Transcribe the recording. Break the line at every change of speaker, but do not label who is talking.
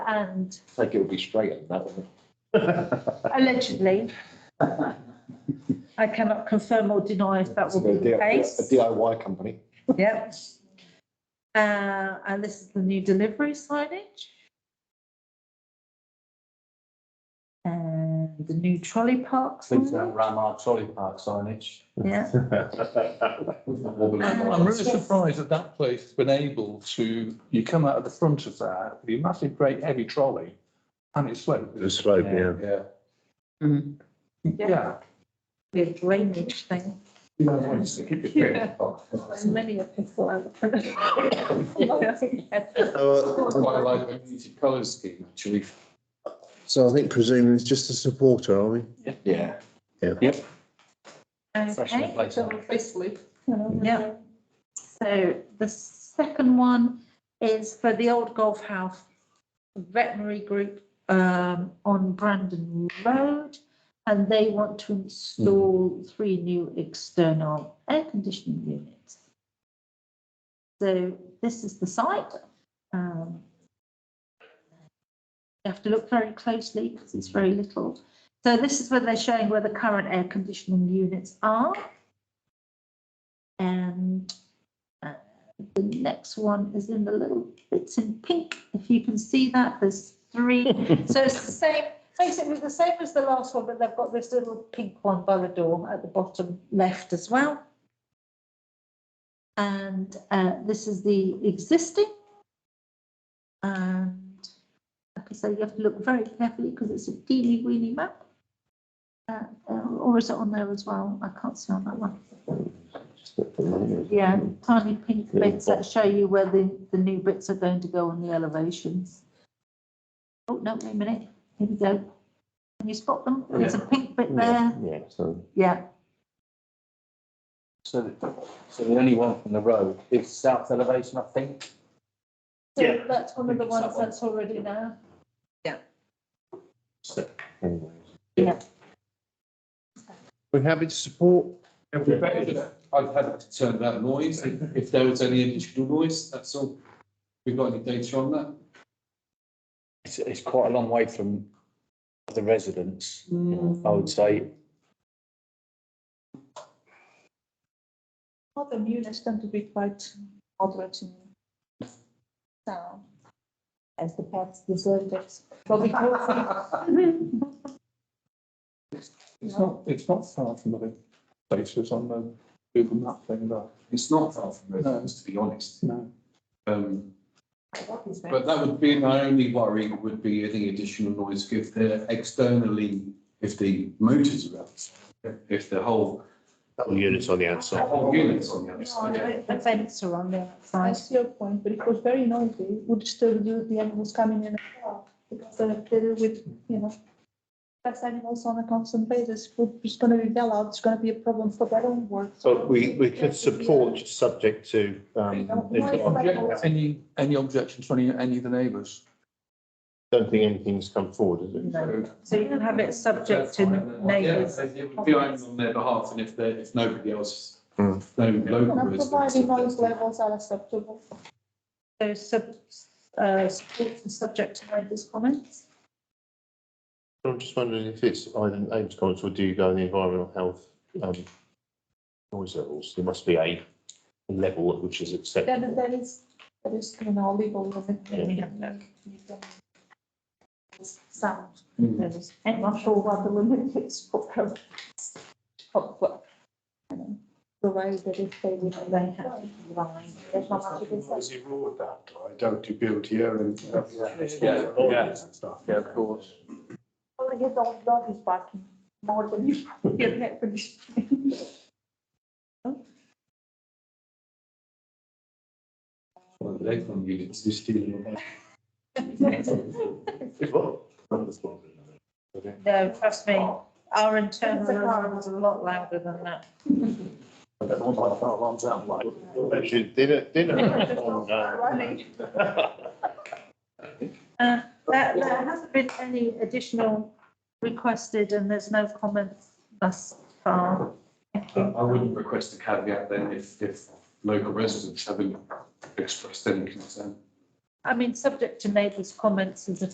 and
Like it'll be straight on that one.
allegedly. I cannot confirm or deny if that will be the
A
case.
DIY company.
Yep. Uh, and this is the new delivery signage. And the new trolley park
Please don't
sign,
ram our trolley park signage.
yeah.
I'm I'm really surprised that that place has been able to, you come out of the front of that, with your massive great heavy trolley, and it's slow.
The slope, yeah.
Yeah.
Yeah.
The drainage thing.
You don't want to keep your
Yeah.
Many a people out.
So, uh,
Quite like the muted colour scheme, actually.
So I think presumably it's just a supporter, are we?
Yeah.
Freshman
Okay.
place.
Basically.
Yeah. So the second one is for the old golf house veterinary group um on Brandon Road. And they want to install three new external air conditioning units. So this is the site. Um, You have to look very closely because it's very little. So this is where they're showing where the current air conditioning units are. And uh, the next one is in the little bits in pink, if you can see that, there's three. So it's the same, basically the same as the last one, but they've got this little pink one by the door at the bottom left as well. And uh, this is the existing. And like I say, you have to look very carefully because it's a teeny weeny map. Uh, uh, Or is it on there as well? I can't see on that one. Yeah, tiny pink bits that show you where the, the new bits are going to go on the elevations. Oh, no, wait a minute, here we go. Can you spot them? There's a pink bit there,
Yeah, so.
yeah,
So, so the only one from the road is south elevation, I think.
so that's one of the
It's that
ones
one.
that's already there.
We're happy to support.
It'd be better if I'd had to turn that noise, if if there was any additional noise, that's all. We've got any data on that?
It's, it's quite a long way from the residents, I
Mm.
would say.
Well, the units tend to be quite moderate in sound. As the pets deserve it. But we call
It's not, it's not far from the places on the Google map thing, though.
It's not far from residents, to be honest.
No.
Um,
it.
but that would be my only worry would be any additional noise if they're externally, if the motors are outside, if the whole,
Units on the
the
outside.
whole unit's on the other
No,
side.
no,
The vents are on the
I
outside.
see your point, but it was very noisy, It would disturb you, the animals coming in and out. Because uh, they're filled with, you know, pest animals on a constant basis, Food is gonna be well out, it's gonna be a problem for their own work.
But we, we could support subject to, um, if- I
Object- Any, any objection to any, any of the neighbours?
don't think anything's come forward, is it?
No. So you can have it subject
That's
to
fine, then. Yeah,
neighbours.
so It would be only on their behalf and if there, if nobody else,
Hmm.
no local
And
residents.
providing noise
then-
levels are acceptable.
So sub, uh, support and subject to neighbours' comments.
I'm just wondering if it's either Ames comments or do you go in the environmental health, um, noise levels? There must be a level at which is
There,
acceptable.
there is, there is, you know, legal limit.
Yeah.
Sound,
Hmm.
there is, I'm not sure what the limit is for. per- for- for, you know, The way that if they would, they have. There's not much you can say.
Yeah, yeah. Yeah, of course.
Well, his old dog is barking more than you get that for this.
Well, the next one you just steal your head.
No, trust me, our internal alarm is a lot louder than that.
Actually, dinner, dinner on, uh,
Uh, There, there hasn't been any additional requested and there's no comments thus far. Thank
I
you.
uh, I wouldn't request a caveat then if, if local residents haven't expressed any concern.
I mean, subject to neighbours' comments is a